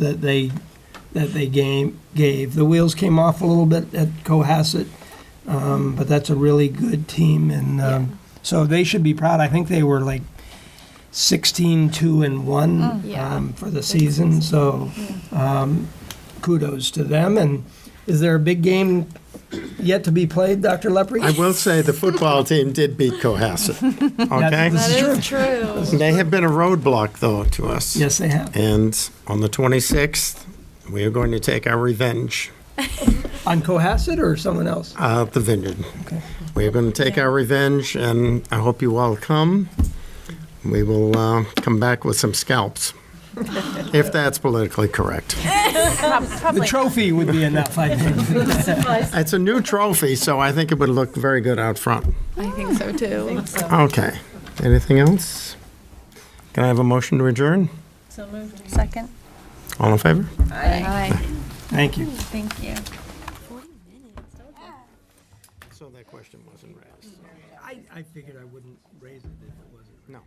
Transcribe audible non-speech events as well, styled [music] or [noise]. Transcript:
that they, that they game, gave. The wheels came off a little bit at Cohasset, um, but that's a really good team, and um, so they should be proud. I think they were like 16, 2, and 1 yeah. um, for the season, so um, kudos to them. And is there a big game yet to be played, Dr. Lepre? I will say the football team did beat Cohasset. That's- Okay? That is true. They have been a roadblock, though, to us. Yes, they have. And on the 26th, we are going to take our revenge On Cohasset or someone else? uh, at the vineyard. Okay. We are going to take our revenge, and I hope you all come. We will uh, come back with [laughs] some scalps, if that's politically correct. The trophy would be enough, I [laughs] think. It's a new trophy, so I think it would look very good out front. [laughs] I think so too. Okay. Anything else? Can I have a motion to adjourn? Second? All in favor? Aye. Thank you. Thank you. So that question wasn't raised. I, I figured I wouldn't raise it if it wasn't. No.